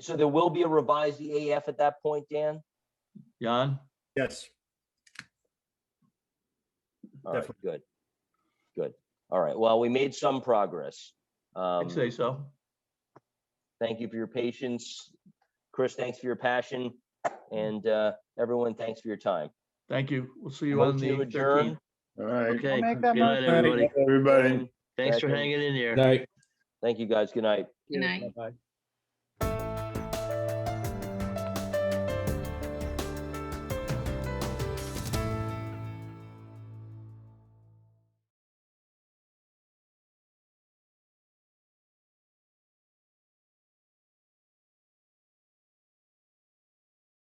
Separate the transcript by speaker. Speaker 1: so there will be a revised EAF at that point, Dan?
Speaker 2: Jan?
Speaker 3: Yes,
Speaker 1: All right,
Speaker 3: Definitely.
Speaker 1: good. Good. All right. Well, we made some progress. Um,
Speaker 2: I'd say so.
Speaker 1: Thank you for your patience. Chris, thanks for your passion. And uh, everyone, thanks for your time.
Speaker 2: Thank you. We'll see you on
Speaker 1: Motion to
Speaker 2: the
Speaker 1: adjourn.
Speaker 2: thirteenth.
Speaker 3: all right.
Speaker 2: Okay.
Speaker 4: Make
Speaker 2: Good
Speaker 4: that
Speaker 2: night,
Speaker 4: motion.
Speaker 2: everybody.
Speaker 3: Everybody.
Speaker 2: Thanks for
Speaker 1: Second.
Speaker 2: hanging in there.
Speaker 5: Night.
Speaker 1: Thank you, guys. Good night.
Speaker 4: Good night.
Speaker 2: Bye-bye.